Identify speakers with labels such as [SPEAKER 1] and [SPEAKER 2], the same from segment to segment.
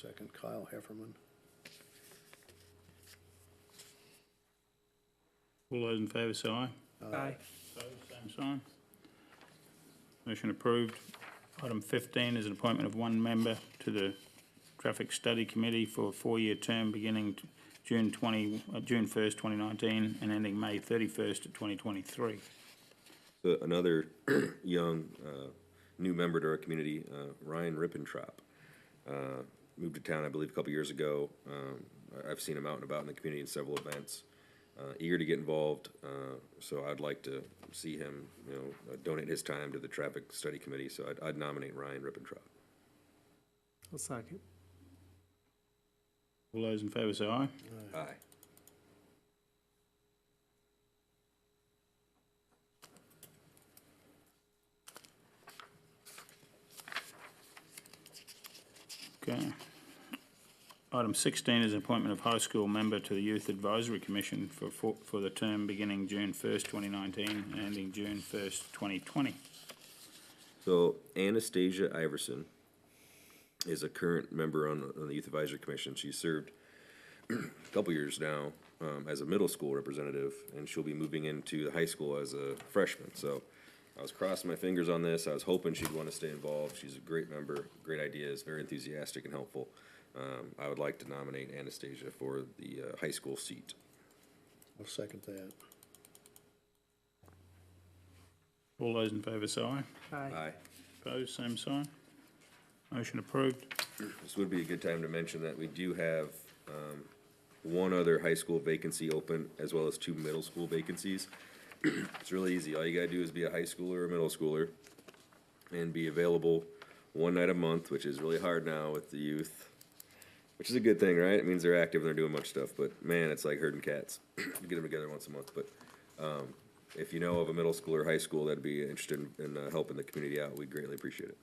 [SPEAKER 1] Second Kyle Hefferman.
[SPEAKER 2] All those in favour say aye.
[SPEAKER 3] Aye.
[SPEAKER 2] Opposed, same sign. Motion approved. Item fifteen is an appointment of one member to the Traffic Study Committee for a four-year term beginning t- June twenty, uh, June first, twenty nineteen, and ending May thirty-first of twenty twenty-three.
[SPEAKER 4] So another young, uh, new member to our community, uh, Ryan Rippentrop. Uh, moved to town, I believe, a couple years ago. Um, I- I've seen him out and about in the community in several events. Uh, eager to get involved, uh, so I'd like to see him, you know, donate his time to the traffic study committee, so I'd, I'd nominate Ryan Rippentrop.
[SPEAKER 3] I'll second.
[SPEAKER 2] All those in favour say aye.
[SPEAKER 4] Aye.
[SPEAKER 2] Okay. Item sixteen is an appointment of high school member to the Youth Advisory Commission for, for, for the term beginning June first, twenty nineteen, and ending June first, twenty twenty.
[SPEAKER 4] So Anastasia Iverson is a current member on, on the Youth Advisory Commission. She served a couple years now um, as a middle school representative, and she'll be moving into the high school as a freshman. So I was crossing my fingers on this. I was hoping she'd want to stay involved. She's a great member, great ideas, very enthusiastic and helpful. Um, I would like to nominate Anastasia for the uh, high school seat.
[SPEAKER 1] I'll second that.
[SPEAKER 2] All those in favour say aye.
[SPEAKER 3] Aye.
[SPEAKER 2] Opposed, same sign. Motion approved.
[SPEAKER 4] This would be a good time to mention that we do have um, one other high school vacancy open, as well as two middle school vacancies. It's really easy. All you gotta do is be a high schooler or a middle schooler and be available one night a month, which is really hard now with the youth. Which is a good thing, right? It means they're active and they're doing much stuff, but man, it's like herding cats. You Get them together once a month, but um, if you know of a middle school or high school that'd be interested in- in uh, helping the community out, we greatly appreciate it.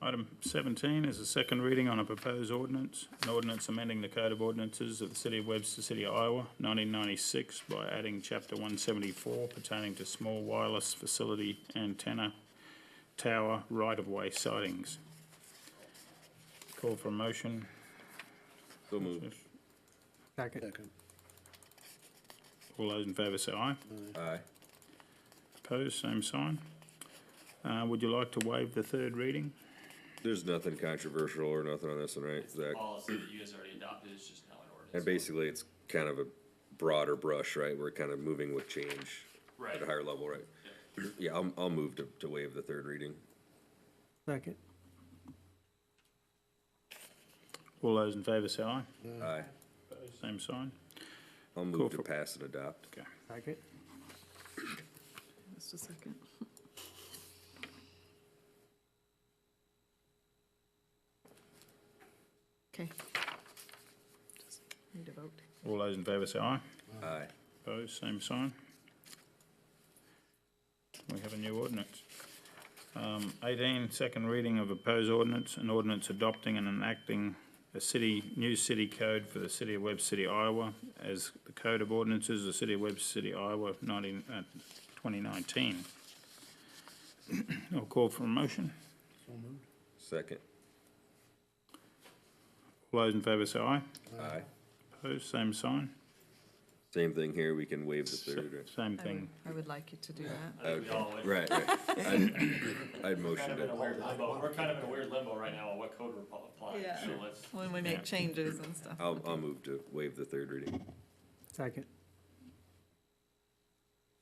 [SPEAKER 2] Item seventeen is a second reading on a proposed ordinance, an ordinance amending the Code of Ordinances of the City of Webster City, Iowa, nineteen ninety-six by adding chapter one seventy-four pertaining to small wireless facility antenna tower right-of-way sightings. Call for a motion.
[SPEAKER 4] So moved.
[SPEAKER 3] Second.
[SPEAKER 1] Second.
[SPEAKER 2] All those in favour say aye.
[SPEAKER 4] Aye.
[SPEAKER 2] Opposed, same sign. Uh, would you like to waive the third reading?
[SPEAKER 4] There's nothing controversial or nothing on this one, right, Zach?
[SPEAKER 5] policy that you guys already adopted, it's just now an ordinance.
[SPEAKER 4] And basically, it's kind of a broader brush, right? We're kind of moving with change at a
[SPEAKER 5] Right.
[SPEAKER 4] higher level, right? Yeah, I'll, I'll move to, to waive the third reading.
[SPEAKER 3] Second.
[SPEAKER 2] All those in favour say aye.
[SPEAKER 4] Aye.
[SPEAKER 2] Opposed, same sign.
[SPEAKER 4] I'll
[SPEAKER 2] Cool
[SPEAKER 4] move to
[SPEAKER 2] for-
[SPEAKER 4] pass and adopt.
[SPEAKER 3] Second.
[SPEAKER 6] Just a second. Okay. Just Need a vote.
[SPEAKER 2] All those in favour say aye.
[SPEAKER 4] Aye.
[SPEAKER 2] Opposed, same sign. We have a new ordinance. Um, eighteen, second reading of proposed ordinance, an ordinance adopting and enacting a city, new city code for the city of Webb City, Iowa, as the code of ordinances of the city of Webb City, Iowa, nineteen, uh, twenty nineteen. I'll call for a motion.
[SPEAKER 1] So moved.
[SPEAKER 4] Second.
[SPEAKER 2] All those in favour say aye.
[SPEAKER 4] Aye.
[SPEAKER 2] Opposed, same sign.
[SPEAKER 4] Same thing here, we can waive the third, right?
[SPEAKER 2] Same
[SPEAKER 6] I would,
[SPEAKER 2] thing.
[SPEAKER 6] I would like you to do that.
[SPEAKER 5] I think we all, we're
[SPEAKER 4] Right, right. I'd, I'd motion
[SPEAKER 5] kind of in a
[SPEAKER 4] to,
[SPEAKER 5] weird limbo, we're kind of in a weird limbo right now on what code we're pl- applying,
[SPEAKER 6] Yeah.
[SPEAKER 5] so let's,
[SPEAKER 6] When we make changes and stuff.
[SPEAKER 4] I'll, I'll move to waive the third reading.
[SPEAKER 3] Second.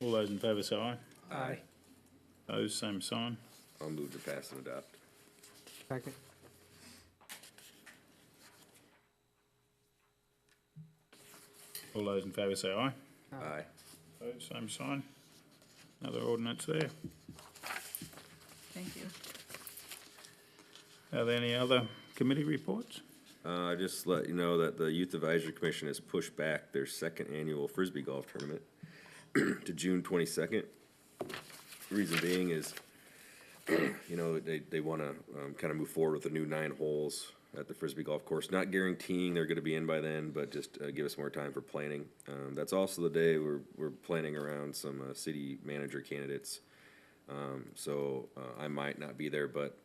[SPEAKER 2] All those in favour say aye.
[SPEAKER 3] Aye.
[SPEAKER 2] Opposed, same sign.
[SPEAKER 4] I'll move to pass and adopt.
[SPEAKER 3] Second.
[SPEAKER 2] All those in favour say aye.
[SPEAKER 4] Aye.
[SPEAKER 2] Opposed, same sign. Another ordinance there.
[SPEAKER 6] Thank you.
[SPEAKER 2] Are there any other committee reports?
[SPEAKER 4] Uh, just let you know that the Youth Advisory Commission has pushed back their second annual frisbee golf tournament to June twenty-second. Reason being is, you know, they, they wanna, um, kinda move forward with the new nine holes at the frisbee golf course. Not guaranteeing they're gonna be in by then, but just, uh, give us more time for planning. Um, that's also the day we're, we're planning around some, uh, city manager candidates. Um, so, uh, I might not be there, but